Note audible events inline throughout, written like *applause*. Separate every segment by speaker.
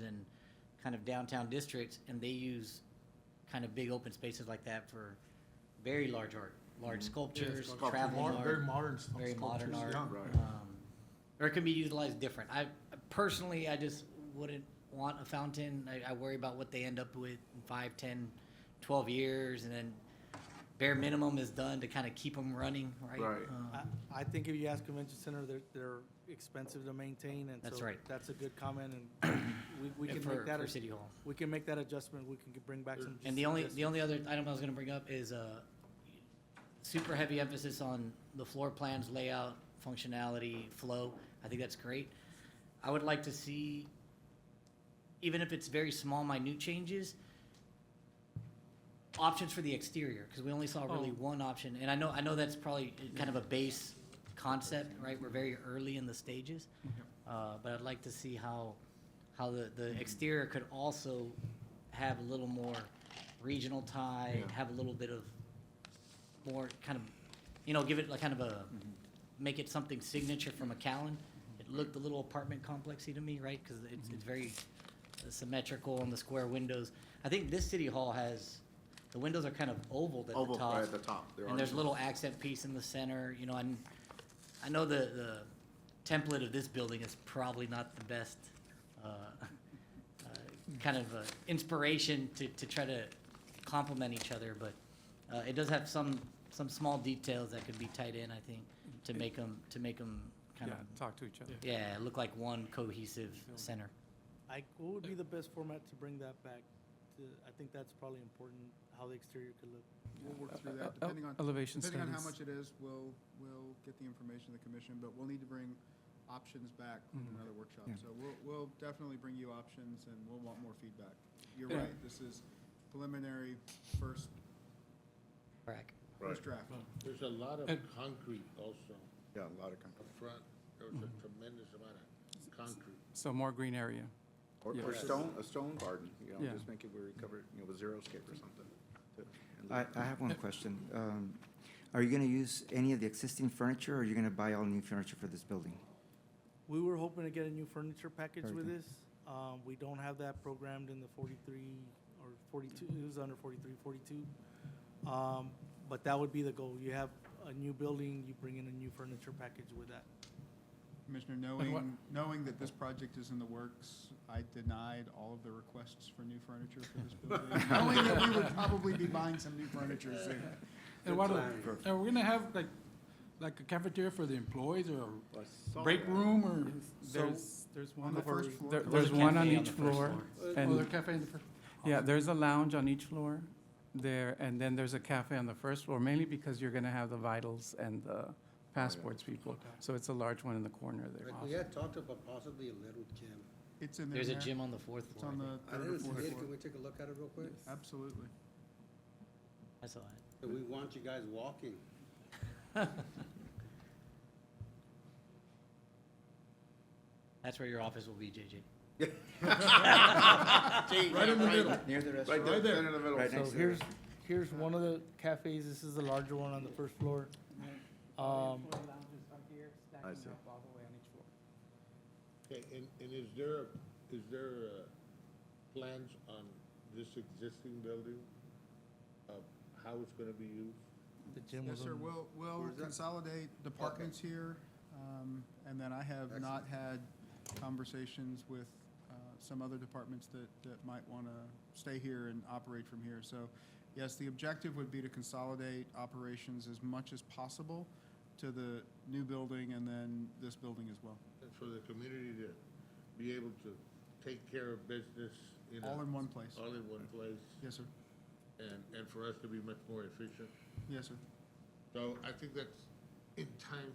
Speaker 1: and kind of downtown districts, and they use kind of big open spaces like that for very large art,
Speaker 2: Mm-hmm.
Speaker 1: large sculptures,
Speaker 3: sculpture.
Speaker 1: traveling
Speaker 3: Mar-
Speaker 1: art.
Speaker 3: very modern s-
Speaker 1: Very modern art.
Speaker 3: sculptures, yeah.
Speaker 4: Right.
Speaker 1: um, Or it can be utilized different. I, personally, I just wouldn't want a fountain. I, I worry about what they end up with in five, ten, twelve years, and then bare minimum is done to kind of keep them running, right?
Speaker 4: Right.
Speaker 1: Um,
Speaker 2: I, I think if you ask convention center, they're, they're expensive to maintain and so.
Speaker 1: That's right.
Speaker 2: That's a good comment
Speaker 1: *coughs*
Speaker 2: and we, we
Speaker 1: and
Speaker 2: can
Speaker 1: for,
Speaker 2: make that,
Speaker 1: for
Speaker 2: a-
Speaker 1: city hall.
Speaker 2: we can make that adjustment. We can bring back some.
Speaker 1: And the only, the
Speaker 2: suggestions.
Speaker 1: only other item I was gonna bring up is, uh, super heavy emphasis on the floor plans, layout, functionality, flow. I think that's great. I would like to see, even if it's very small, minute changes, options for the exterior, because we only saw really
Speaker 2: Oh.
Speaker 1: one option. And I know, I know that's probably kind of a base concept, right? We're very early in the stages. Uh, but I'd like to see how, how the, the exterior could also have a little more regional tie,
Speaker 4: Yeah.
Speaker 1: have a little bit of more kind of, you know, give it like kind of a,
Speaker 4: Mm-hmm.
Speaker 1: make it something signature from McAllen. It looked a little apartment complexy to me, right? Because it's,
Speaker 4: Mm-hmm.
Speaker 1: it's very uh, symmetrical on the square windows. I think this city hall has, the windows are kind of oval at the
Speaker 4: Oval,
Speaker 1: top.
Speaker 4: right at the top. There
Speaker 1: And
Speaker 4: are
Speaker 1: there's a
Speaker 4: no-
Speaker 1: little accent piece in the center, you know, and I know the, the template of this building is probably not the best, uh, uh, kind of, uh, inspiration to, to try to complement each other, but, uh, it does have some, some small details that could be tied in, I think, to make them, to make them kind of,
Speaker 5: talk to each other.
Speaker 1: yeah, look like one cohesive center.
Speaker 2: I, what would be the best format to bring that back? To, I think that's probably important, how the exterior could look.
Speaker 3: We'll work through
Speaker 5: Uh,
Speaker 3: that,
Speaker 5: uh,
Speaker 3: depending on,
Speaker 5: Elevation
Speaker 3: depending on how
Speaker 5: studies.
Speaker 3: much it is, we'll, we'll get the information to the commission, but we'll need to bring options back in
Speaker 5: Mhm.
Speaker 3: another workshop.
Speaker 5: Yeah.
Speaker 3: So we'll, we'll definitely bring you options and we'll want more feedback. You're
Speaker 5: Yeah.
Speaker 3: right, this is preliminary, first,
Speaker 1: Correct.
Speaker 4: Right.
Speaker 3: first draft.
Speaker 6: There's a lot of
Speaker 5: And-
Speaker 6: concrete also
Speaker 4: Yeah, a lot of
Speaker 6: up
Speaker 4: companies.
Speaker 6: front. There was a tremendous amount of concrete.
Speaker 5: So more green area.
Speaker 4: Or,
Speaker 5: Yeah.
Speaker 4: or stone, a stone garden, you know,
Speaker 5: Yeah.
Speaker 4: just make it where you cover it, you know, with xeriscape or something. to- and
Speaker 7: I,
Speaker 4: look-
Speaker 7: I have one question. Um, Are you going to use any of the existing furniture, or are you going to buy all new furniture for this building?
Speaker 2: We were hoping to get a new furniture package with
Speaker 7: Everything.
Speaker 2: this. Um, we don't have that programmed in the forty-three or forty-two, it was under 43, 42. Um, but that would be the goal. You have a new building, you bring in a new furniture package with that.
Speaker 3: Commissioner,
Speaker 5: what-
Speaker 3: knowing, knowing that this project is in the works, I denied all of the requests for new furniture for
Speaker 5: *laughs*
Speaker 3: this building. Knowing that we would probably be buying some new furniture soon.
Speaker 8: And what, are we gonna have like, like a cafeteria for the employees or
Speaker 4: I saw
Speaker 8: break
Speaker 4: that.
Speaker 8: room or?
Speaker 5: There's, there's
Speaker 3: On the first floor.
Speaker 5: There,
Speaker 3: correct?
Speaker 5: there's
Speaker 1: There's a
Speaker 5: one on
Speaker 1: cafe on
Speaker 5: each
Speaker 1: the first
Speaker 5: floor.
Speaker 8: Oh, the
Speaker 5: And,
Speaker 8: cafe in the first.
Speaker 5: yeah, there's a lounge on each floor there, and then there's a cafe on the first floor, mainly because you're gonna have the vitals and the passports people. So it's a large one in the corner there.
Speaker 6: Like, we had talked about possibly a little gym.
Speaker 3: It's in there.
Speaker 1: There's a gym on the fourth
Speaker 3: It's
Speaker 1: floor,
Speaker 3: on
Speaker 1: I think.
Speaker 3: the
Speaker 6: I
Speaker 3: third or
Speaker 6: didn't see
Speaker 3: fourth
Speaker 6: it.
Speaker 3: floor.
Speaker 6: Can we take a look at it real quick?
Speaker 3: Absolutely.
Speaker 1: I saw it.
Speaker 6: That We want you guys walking.
Speaker 1: That's where your office will be, JJ.
Speaker 4: Right in the middle.
Speaker 7: Near the
Speaker 4: Right there, right in the middle.
Speaker 7: Right
Speaker 2: So
Speaker 7: next to the
Speaker 2: here's,
Speaker 7: restaurant.
Speaker 2: here's one of the cafes. This is the larger one on the first floor. Um,
Speaker 4: I see.
Speaker 6: Okay, and, and is there, is there, uh, plans on this existing building of how it's gonna be used?
Speaker 2: the gym
Speaker 3: Yes,
Speaker 2: was
Speaker 3: sir,
Speaker 2: on.
Speaker 3: we'll, we'll
Speaker 6: Where's that?
Speaker 3: consolidate departments here, um, and then I have not had conversations with uh, some other departments that, that might want to stay here and operate from here. So, yes, the objective would be to consolidate operations as much as possible to the new building and then this building as well,
Speaker 6: And for the community to be able to take care of business in a-
Speaker 3: all in one place.
Speaker 6: All in one place,
Speaker 3: Yes, sir,
Speaker 6: and, and for us to be much more efficient.
Speaker 3: yes, sir.
Speaker 6: So I think that's in time,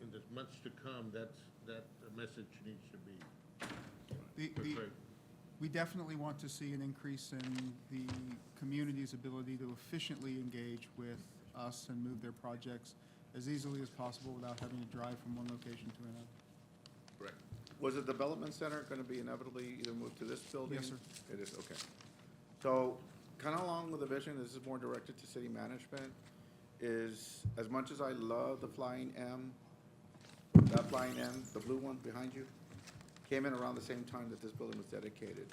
Speaker 6: in the months to come, that's, that message needs to be
Speaker 3: The, the,
Speaker 6: portrayed.
Speaker 3: We definitely want to see an increase in the community's ability to efficiently engage with us and move their projects as easily as possible without having to drive from one location to another.
Speaker 6: Correct.
Speaker 4: Was the development center gonna be inevitably either moved to this building?
Speaker 3: Yes, sir.
Speaker 4: It is, okay. So, kinda along with the vision, this is more directed to city management, is as much as I love the Flying M, that Flying M, the blue one behind you, came in around the same time that this building was dedicated.